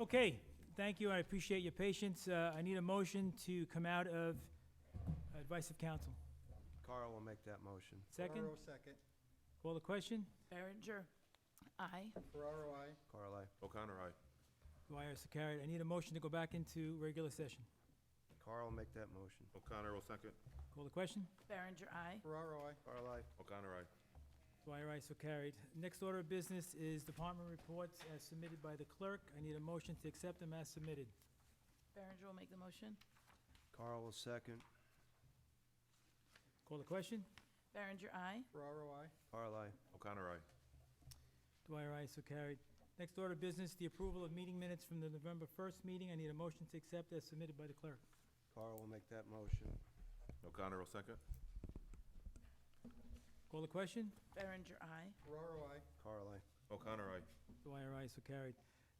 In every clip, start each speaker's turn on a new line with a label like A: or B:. A: Okay, thank you, I appreciate your patience. Uh, I need a motion to come out of advice of counsel.
B: Carl will make that motion.
A: Second,
C: Ferraro, second.
A: call the question?
D: Berenger, aye.
C: Ferraro, aye.
B: Carl, aye.
E: O'Connor, aye.
A: Dwyer is carried. I need a motion to go back into regular session.
B: Carl, make that motion.
E: O'Connor will second.
A: Call the question?
D: Berenger, aye.
C: Ferraro, aye.
B: Carl, aye.
E: O'Connor, aye.
A: Dwyer, aye, so carried. Next order of business is department reports as submitted by the clerk. I need a motion to accept them as submitted.
D: Berenger will make the motion.
B: Carl will second.
A: Call the question?
D: Berenger, aye.
C: Ferraro, aye.
B: Carl, aye.
E: O'Connor, aye.
A: Dwyer, aye, so carried. Next order of business, the approval of meeting minutes from the November 1st meeting. I need a motion to accept as submitted by the clerk.
B: Carl will make that motion.
E: O'Connor will second.
A: Call the question?
D: Berenger, aye.
C: Ferraro, aye.
B: Carl, aye.
E: O'Connor, aye.
A: Dwyer, aye, so carried.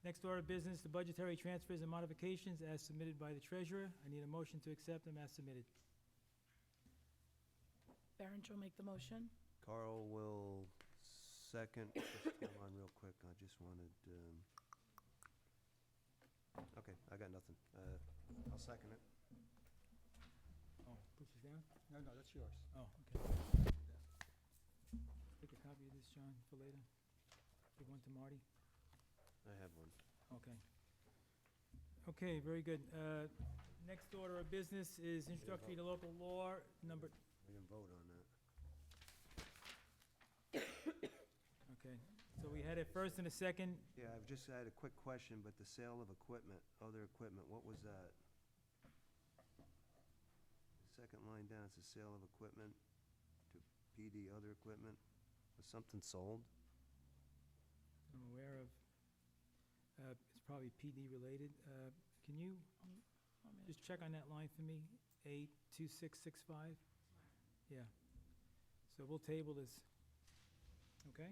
A: Next order of business, the budgetary transfers and modifications as submitted by the treasurer. I need a motion to accept them as submitted.
D: Berenger will make the motion.
B: Carl will second. Just hold on real quick, I just wanted, um, okay, I got nothing. Uh, I'll second it.
A: Oh, push this down?
C: No, no, that's yours.
A: Oh, okay. Take a copy of this, John, for later. Give one to Marty.
B: I have one.
A: Okay. Okay, very good. Uh, Next order of business is introductory to local law, number,
B: We didn't vote on that.
A: okay. So we had a first and a second.
B: Yeah, I've just had a quick question, but the sale of equipment, other equipment, what was that? Second line down, it's the sale of equipment to PD other equipment. Was something sold?
A: I'm aware of, uh, it's probably PD related. Uh, Can you
D: Want me to-
A: Just check on that line for me, A two six six five? Yeah. So we'll table this, okay?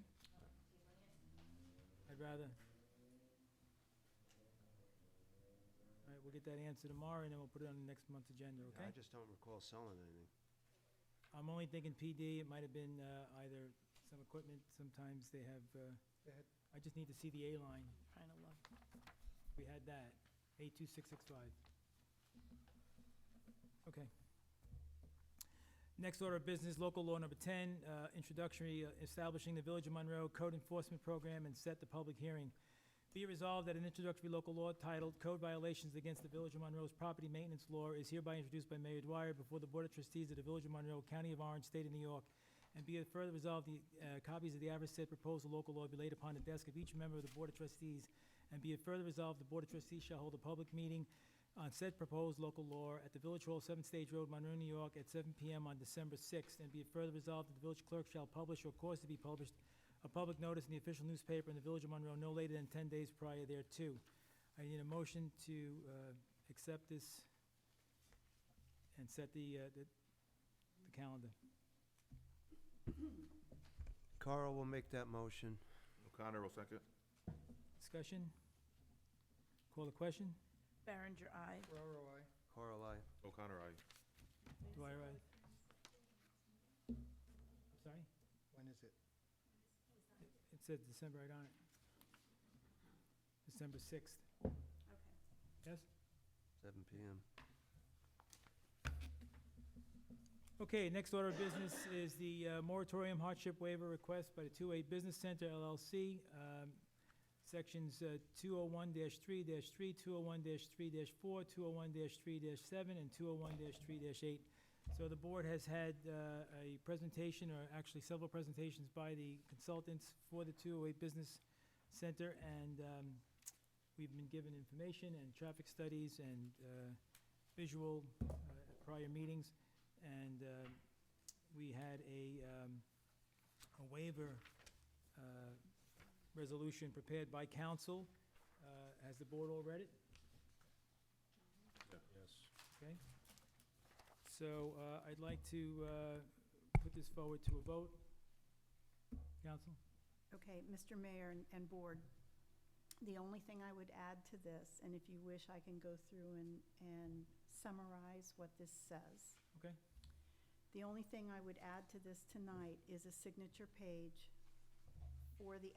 A: I'd rather. All right, we'll get that answer tomorrow, and then we'll put it on the next month's agenda,
B: Yeah,
A: okay?
B: I just don't recall selling anything.
A: I'm only thinking PD, it might have been uh, either some equipment, sometimes they have, uh,
C: They had-
A: I just need to see the A line.
D: Trying to look.
A: We had that, eight two six six five. Okay. Next order of business, local law number ten, uh, introductory, uh, establishing the Village of Monroe Code Enforcement Program and set the public hearing. Be it resolved that an introductory local law titled Code Violations Against the Village of Monroe's Property Maintenance Law is hereby introduced by Mayor Dwyer before the Board of Trustees of the Village of Monroe, County of Orange, State of New York. And be it further resolved, the, uh, copies of the aforesaid proposal local law be laid upon the desk of each member of the Board of Trustees and be it further resolved, the Board of Trustees shall hold a public meeting on said proposed local law at the Village Hall, Seventh Stage Road, Monroe, New York, at seven PM on December sixth. And be it further resolved, that the village clerk shall publish or cause to be published a public notice in the official newspaper in the Village of Monroe no later than ten days prior thereto. I need a motion to, uh, accept this and set the, uh, the, the calendar.
B: Carl will make that motion.
E: O'Connor will second.
A: Discussion? Call the question?
D: Berenger, aye.
C: Ferraro, aye.
B: Carl, aye.
E: O'Connor, aye.
A: Dwyer, aye. uh, Sorry?
C: When is it?
A: It says December right on it. December 6th. Okay. Yes?
B: Seven PM.
A: Okay, next order of business is the uh, moratorium hardship waiver request by the 2A Business Center LLC. um, Sections uh, 201-3-3, 201-3-4, 201-3-7, and 201-3-8. So the board has had uh, a presentation, or actually several presentations by the consultants for the 208 Business Center, and um, we've been given information and traffic studies and uh, visual uh, at prior meetings and uh, we had a, um, a waiver uh, resolution prepared by council. Uh, Has the board all read it?
E: Yes.
A: Okay. So uh, I'd like to uh, put this forward to a vote. Council?
F: Okay, Mr. Mayor and- and Board, the only thing I would add to this, and if you wish, I can go through and, and summarize what this says.
A: Okay.
F: The only thing I would add to this tonight is a signature page for the